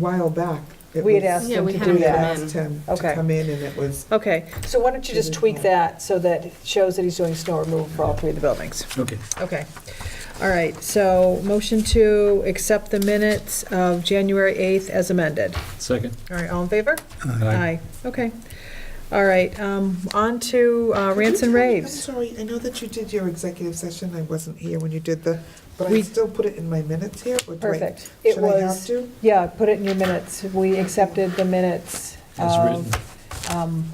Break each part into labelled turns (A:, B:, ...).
A: while back. it
B: We had
A: was-
B: asked
C: Yeah,
B: them
C: we
B: to
C: had
B: do
C: them
B: that.
C: come in.
A: Asked him
B: Okay.
A: to come in, and it was,
B: Okay, so why don't you just tweak that so that it shows that he's doing snow removal for all three of the buildings?
D: Okay.
B: Okay. All right, so motion to accept the minutes of January 8th as amended.
D: Second.
B: All right, all in favor? Okay. All right, um, on to uh, rants
A: Could you tell
B: and
A: me-
B: raves.
A: I'm sorry, I know that you did your executive session, I wasn't here when you did the, but I
B: We-
A: still put it in my minutes here, or do I?
B: Perfect. It
A: Should I have
B: was,
A: to?
B: yeah, put it in your minutes. We accepted the minutes
D: As
B: of
D: written.
B: um,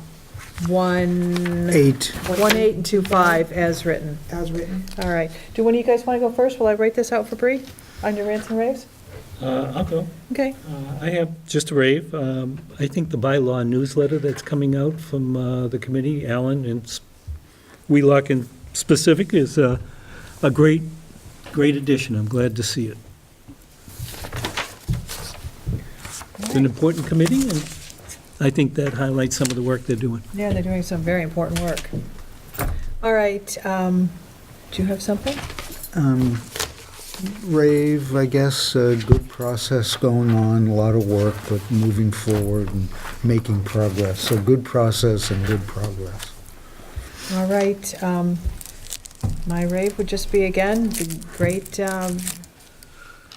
B: 1,
E: Eight.
B: 1, 8, and 2, 5 as written.
A: As written?
B: All right. Do one of you guys want to go first? Will I write this out for Bree on your rants and raves?
D: Uh, I'll go.
B: Okay.
D: Uh, I have just a rave. Um, I think the bylaw newsletter that's coming out from uh, the committee, Alan and S- Wheelock in specific, is a, a great, great addition. I'm glad to see it. It's an important committee, and I think that highlights some of the work they're doing.
B: Yeah, they're doing some very important work. All right, um, do you have something?
E: Um, Rave, I guess, a good process going on, a lot of work, but moving forward and making progress. So good process and good progress.
B: All right, um, my rave would just be, again, be great um,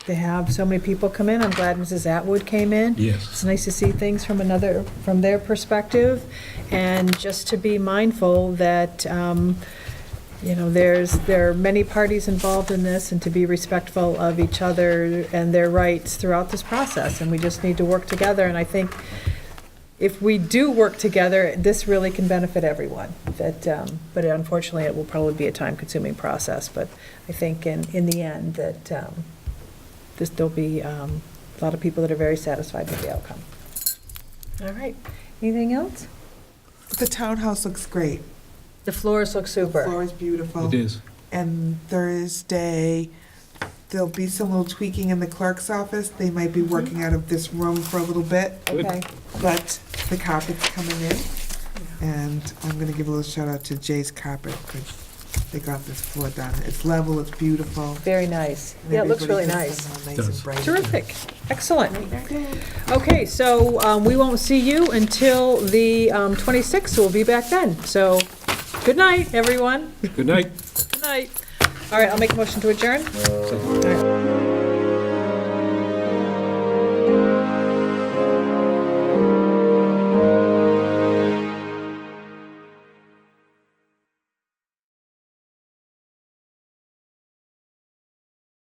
B: to have so many people come in. I'm glad Mrs. Atwood came in.
D: Yes.
B: It's nice to see things from another, from their perspective, and just to be mindful that, um, you know, there's, there are many parties involved in this, and to be respectful of each other and their rights throughout this process, and we just need to work together, and I think if we do work together, this really can benefit everyone. That, um, but unfortunately, it will probably be a time-consuming process, but I think in, in the end, that um, this, there'll be um, a lot of people that are very satisfied with the outcome. All right, anything else?
A: The townhouse looks great.
B: The floors look
A: The
B: super.
A: floor is beautiful.
D: It is.
A: And Thursday, there'll be some little tweaking in the clerk's office. They might be
B: Mm-hmm.
A: working out of this room for a little bit,
D: Good.
B: Okay,
A: but the carpet's coming in. And I'm gonna give a little shout out to Jay's Carpet, 'cause they got this floor done. It's level, it's beautiful.
B: very nice.
A: and
B: Yeah, it looks really
A: everybody thinks
B: nice.
A: it's all Nice
D: Does.
A: and bright.
B: Terrific, excellent. Okay, so um, we won't see you until the um, 26th, so we'll be back then. So, good night, everyone.
D: Good night.
B: Good night. All right, I'll make a motion to adjourn. All right.